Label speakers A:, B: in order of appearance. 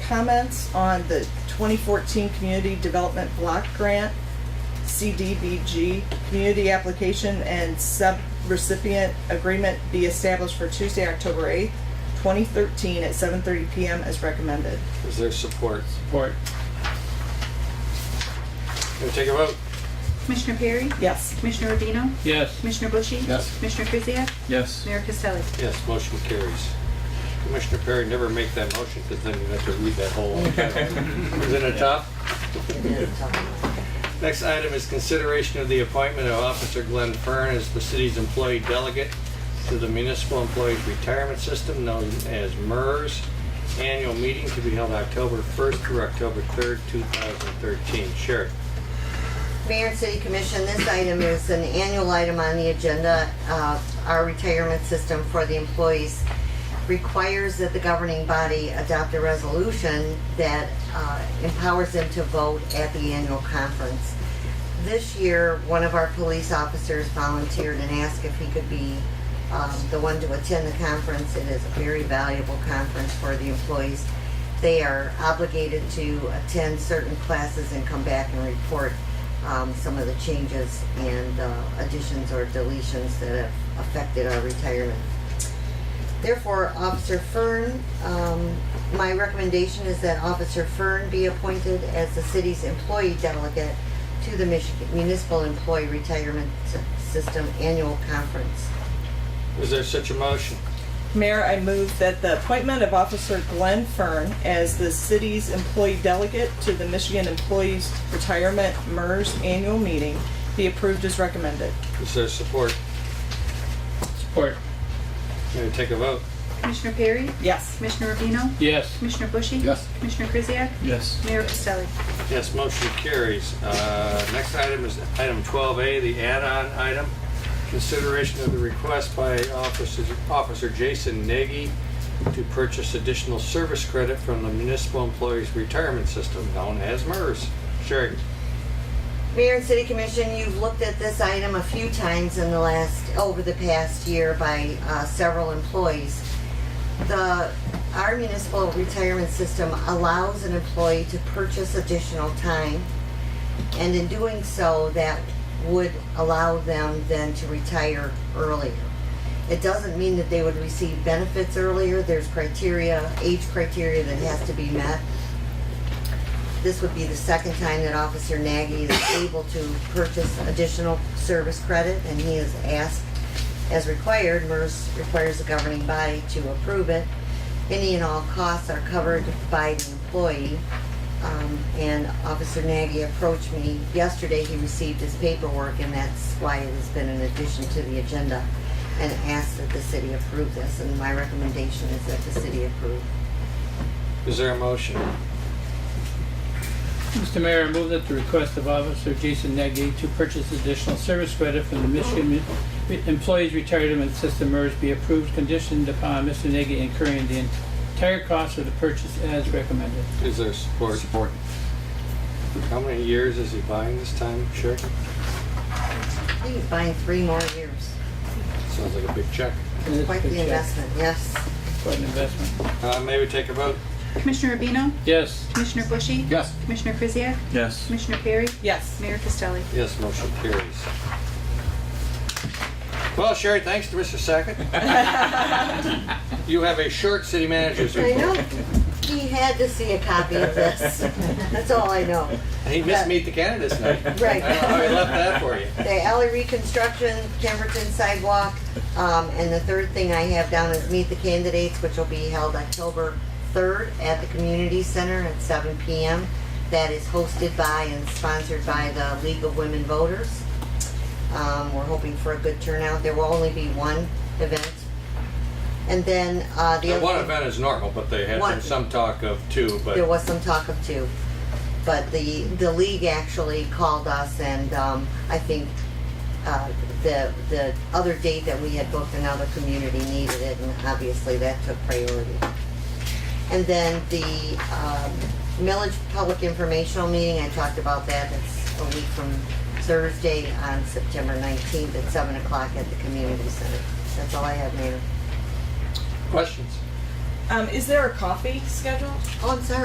A: comments on the 2014 Community Development Block Grant, CDBG, community application and sub-recipient agreement be established for Tuesday, October 8th, 2013 at 7:30 PM as recommended.
B: Is there support?
C: Support.
B: Can we take a vote?
D: Commissioner Perry?
A: Yes.
D: Commissioner Rubino?
C: Yes.
D: Commissioner Bushy?
C: Yes.
D: Commissioner Kuziak?
C: Yes.
D: Mayor Costelli?
B: Yes, motion carries. Commissioner Perry, never make that motion because then you have to read that whole. Is it a top? Next item is consideration of the appointment of Officer Glenn Fern as the city's employee delegate to the Municipal Employees Retirement System known as MERS. Annual meeting to be held October 1st through October 3rd, 2013. Sheriff,
E: Mayor and City Commission, this item is an annual item on the agenda. Uh, Our retirement system for the employees requires that the governing body adopt a resolution that uh, empowers them to vote at the annual conference. This year, one of our police officers volunteered and asked if he could be um, the one to attend the conference. It is a very valuable conference for the employees. They are obligated to attend certain classes and come back and report um, some of the changes and uh, additions or deletions that have affected our retirement. Therefore, Officer Fern, um, my recommendation is that Officer Fern be appointed as the city's employee delegate to the Michigan Municipal Employee Retirement S- System Annual Conference.
B: is there such a motion?
A: Mayor, I move that the appointment of Officer Glenn Fern as the city's employee delegate to the Michigan Employees Retirement MERS Annual Meeting be approved as recommended.
B: Is there support?
C: Support.
B: Can we take a vote?
D: Commissioner Perry?
A: Yes.
D: Commissioner Rubino?
C: Yes.
D: Commissioner Bushy?
C: Yes.
D: Commissioner Kuziak?
C: Yes.
D: Mayor Costelli?
B: Yes, motion carries. Uh, Next item is item 12A, the add-on item. Consideration of the request by Officer Officer Jason Nagy to purchase additional service credit from the Municipal Employees Retirement System, known as MERS. Sherry,
E: Mayor and City Commission, you've looked at this item a few times in the last, over the past year by uh, several employees. The, our municipal retirement system allows an employee to purchase additional time. And in doing so, that would allow them then to retire earlier. It doesn't mean that they would receive benefits earlier. There's criteria, age criteria that has to be met. This would be the second time that Officer Nagy is able to purchase additional service credit, and he is asked, as required, MERS requires the governing body to approve it. Any and all costs are covered by the employee. Um, And Officer Nagy approached me yesterday, he received his paperwork, and that's why it has been an addition to the agenda, and asked that the city approve this, and my recommendation is that the city approve.
B: is there a motion?
C: Mr. Mayor, I move that the request of Officer Jason Nagy to purchase additional service credit from the Michigan Employees Retirement System MERS be approved conditioned upon Mr. Nagy incurring the entire cost of the purchase as recommended.
B: Is there support? Support. How many years is he buying this time, Sherry?
E: I think he's buying three more years.
B: Sounds like a big check.
C: And it's
E: Quite
C: been
E: the
C: checked.
E: investment, yes.
C: Quite an investment.
B: Uh, May we take a vote?
D: Commissioner Rubino?
C: Yes.
D: Commissioner Bushy?
C: Yes.
D: Commissioner Kuziak?
C: Yes.
D: Commissioner Perry?
A: Yes.
D: Mayor Costelli?
B: Yes, motion carries. Well, Sherry, thanks to Mr. Sackett. You have a short city manager's
E: I
B: report.
E: know. He had to see a copy of this. That's all I know.
B: He missed Meet the Candidates night.
E: Right.
B: I I left that for you.
E: The alley reconstruction, Pemberton sidewalk, um, and the third thing I have down is meet the candidates, which will be held October third at the community center at seven PM. That is hosted by and sponsored by the League of Women Voters. Um, we're hoping for a good turnout. There will only be one event. And then, uh, the
B: The
E: other.
B: one
E: thing-
B: event is normal, but they had
E: One.
B: some- some talk of two,
E: There
B: but
E: was some talk of two, but the, the league actually called us and, um, I think, uh, the, the other date that we had booked another community needed it and obviously that took priority. And then the, um, Millage Public Informational Meeting, I talked about that, it's a week from Thursday on September nineteenth at seven o'clock at the community center. That's all I have, Mayor.
B: questions?
A: Um, is there a coffee scheduled?
E: Oh, I'm sorry,